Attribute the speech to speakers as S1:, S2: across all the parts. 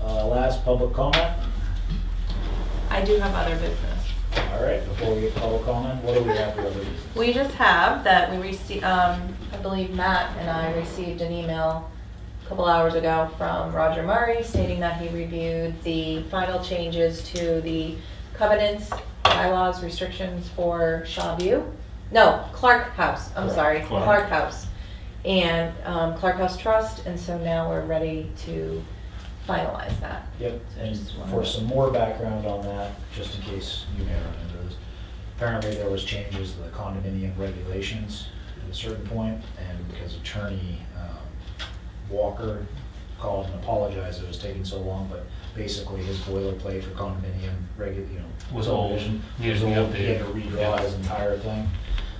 S1: Uh, public comment?
S2: I do have other business.
S1: All right, before we get public comment, what do we have for other business?
S2: We just have that we received, um, I believe Matt and I received an email a couple hours ago from Roger Murray stating that he reviewed the final changes to the covenants, bylaws, restrictions for Shaw View. No, Clark House, I'm sorry,
S3: Clark.
S2: Clark House. And, um, Clark House Trust, and so now we're ready to finalize that.
S1: Yep, and for some more background on that, just in case you may remember this, apparently there was changes to the condominium regulations at a certain point, and because attorney um, Walker called and apologized it was taking so long, but basically his boilerplate for condominium regu, you know.
S3: Was old.
S1: subdivision
S3: Needed
S1: was
S3: to be
S1: old. He had to
S3: updated.
S1: redraw his entire thing,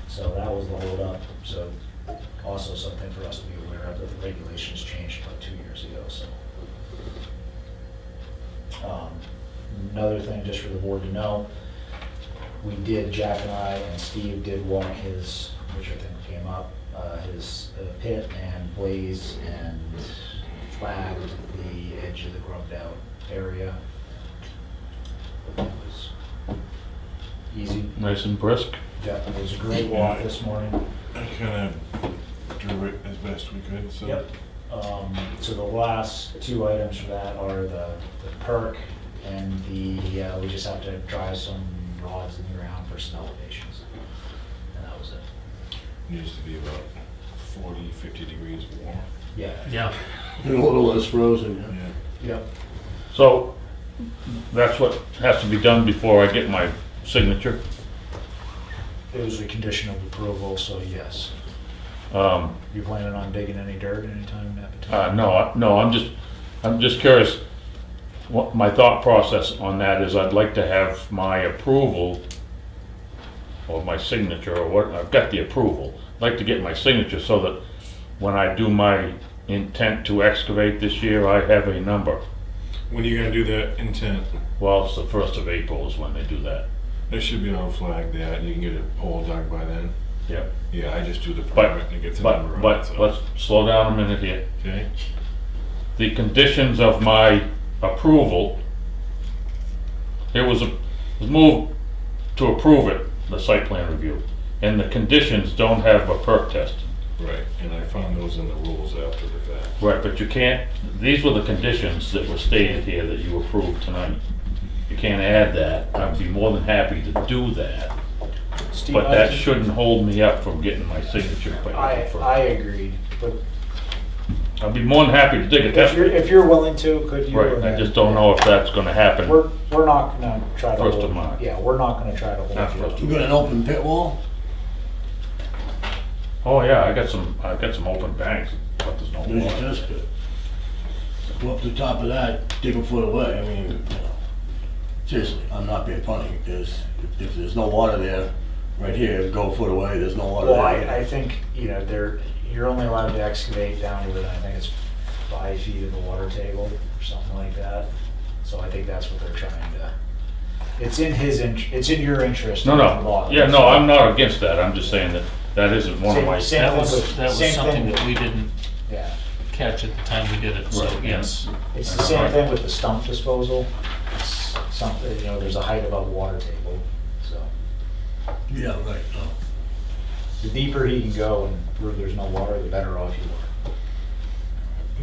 S1: so that was the holdup, so also something for us to be aware of, that the regulations changed about two years ago, so. Um, Another thing, just for the board to know, we did, Jack and I and Steve did walk his, which I think came up, uh, his uh, pit and blaze and flagged the edge of the grubbed out area. It was easy.
S3: Nice and brisk.
S1: Yeah, it was a great walk this morning.
S4: I kind of drew it as best we could, so.
S1: Yep. Um, So the last two items for that are the the perk and the, uh, we just have to drive some rods in the ground for some elevations. And that was it.
S4: Needs to be about 40, 50 degrees warm.
S1: Yeah.
S3: Yeah.
S5: And a little less frozen, yeah.
S4: Yeah.
S1: Yep.
S3: So that's what has to be done before I get my signature.
S1: It was a condition of approval, so yes.
S3: Um,
S1: You planning on digging any dirt anytime at the
S3: uh,
S1: time?
S3: no, I- no, I'm just, I'm just curious. What my thought process on that is I'd like to have my approval or my signature or what, I've got the approval. I'd like to get my signature so that when I do my intent to excavate this year, I have a number.
S4: When are you going to do that intent?
S3: Well, it's the first of April is when they do that.
S4: That should be on flag there, and you can get a pole dug by then.
S3: Yep.
S4: Yeah, I just do the
S3: But-
S4: permit and get the number
S3: But,
S4: on it,
S3: but,
S4: so-
S3: let's slow down a minute here.
S4: Okay?
S3: the conditions of my approval, it was, a- was moved to approve it, the site plan review, and the conditions don't have a perk test.
S4: Right, and I found those in the rules after the fact.
S3: Right, but you can't, these were the conditions that were stated here that you approved tonight. You can't add that, I'd be more than happy to do that,
S1: Steve,
S3: but
S1: I
S3: that
S1: think-
S3: shouldn't hold me up from getting my signature. by
S1: I,
S3: April
S1: I
S3: first.
S1: agreed, but
S3: I'd be more than happy to dig a
S1: if
S3: test.
S1: you're, if you're willing to, could you?
S3: Right, I
S1: amend-
S3: just don't know if that's gonna happen.
S1: We're, we're not gonna try to.
S3: First
S1: hold-
S3: of March.
S1: Yeah, we're not gonna try to hold
S3: Not
S1: you
S3: first
S1: up.
S3: of
S5: You got an open pit wall?
S3: Oh yeah, I got some. I've got some open banks, but there's no
S5: There's
S3: water.
S5: your test pit. Go up to the top of that, dig a foot away, I mean, you know. Seriously, I'm not being funny, because if- if there's no water there, right here, go a foot away, there's no water
S1: Well, I,
S5: there.
S1: I think, you know, there, you're only allowed to excavate down to within, I think it's five feet of the water table or something like that. So I think that's what they're trying to, it's in his, in- it's in your interest.
S3: No,
S1: to
S3: no.
S1: log it,
S3: Yeah, no.
S1: so-
S3: I'm not against that. I'm just saying that that isn't one of
S1: Same-
S3: my.
S1: same
S6: That
S1: thing
S6: was,
S1: with-
S6: that
S1: same
S6: was something
S1: thing-
S6: that we didn't
S1: Yeah,
S6: catch at the time we did it, so,
S3: Right,
S6: yes.
S1: it's the same thing with the stump disposal. It's Something, you know, there's a height above water table, so
S5: Yeah, right, no.
S1: the deeper he can go and prove there's no water, the better off you are.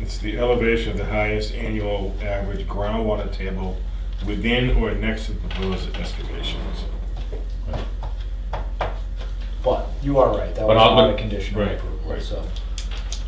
S4: It's the elevation of the highest annual average groundwater table within or next to the proposed excavations.
S1: But you are right, that
S3: But
S1: was
S3: I'll
S1: not
S3: look-
S1: a condition of
S4: right,
S1: approval,
S3: right.
S1: so.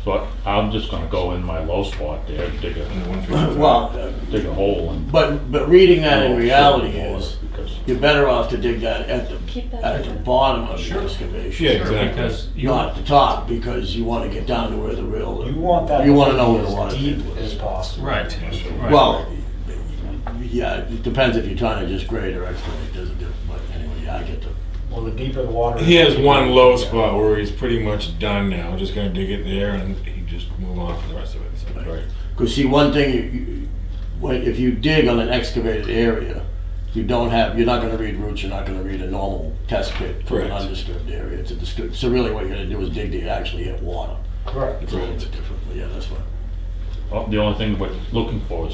S3: So I- I'm just gonna go in my low spot there, and dig a
S4: And the 155.
S5: Well, uh,
S3: dig a hole, and.
S5: but, but reading that in
S3: Oh,
S5: reality
S3: shit,
S5: is,
S3: because-
S5: you're better off to dig that at
S2: Keep
S5: the,
S2: that
S5: at the
S2: open.
S5: bottom of the
S6: Sure.
S5: excavation.
S4: Yeah,
S6: Sure,
S4: exactly.
S6: Because you,
S5: Not at the top, because you wanna get down to where the real.
S1: You want that.
S5: You
S1: to
S5: wanna
S1: be
S5: know where the
S1: as
S5: water
S1: Deep
S5: table is.
S1: as possible.
S6: right, right.
S5: Well, yeah, it depends if you're trying to just grade or excavate, it doesn't do, but anyway, yeah, I get the,
S1: Well, the deeper the water.
S4: He
S1: is,
S4: has
S1: the
S4: one
S1: deeper-
S4: low
S1: yeah.
S4: spot where he's pretty much done now. We're just gonna dig it there and he just move on for the rest of it. So,
S3: Right.
S5: because see, one thing, you, you, when, if you dig on an excavated area, you don't have, you're not gonna read roots, you're not gonna read a normal test pit for an
S4: Correct.
S5: undisturbed area, it's a disturbed, so really what you're gonna do is dig to actually hit water.
S1: Correct.
S5: It's a little bit different, but yeah, that's fine.
S3: oh, The only thing we're looking for is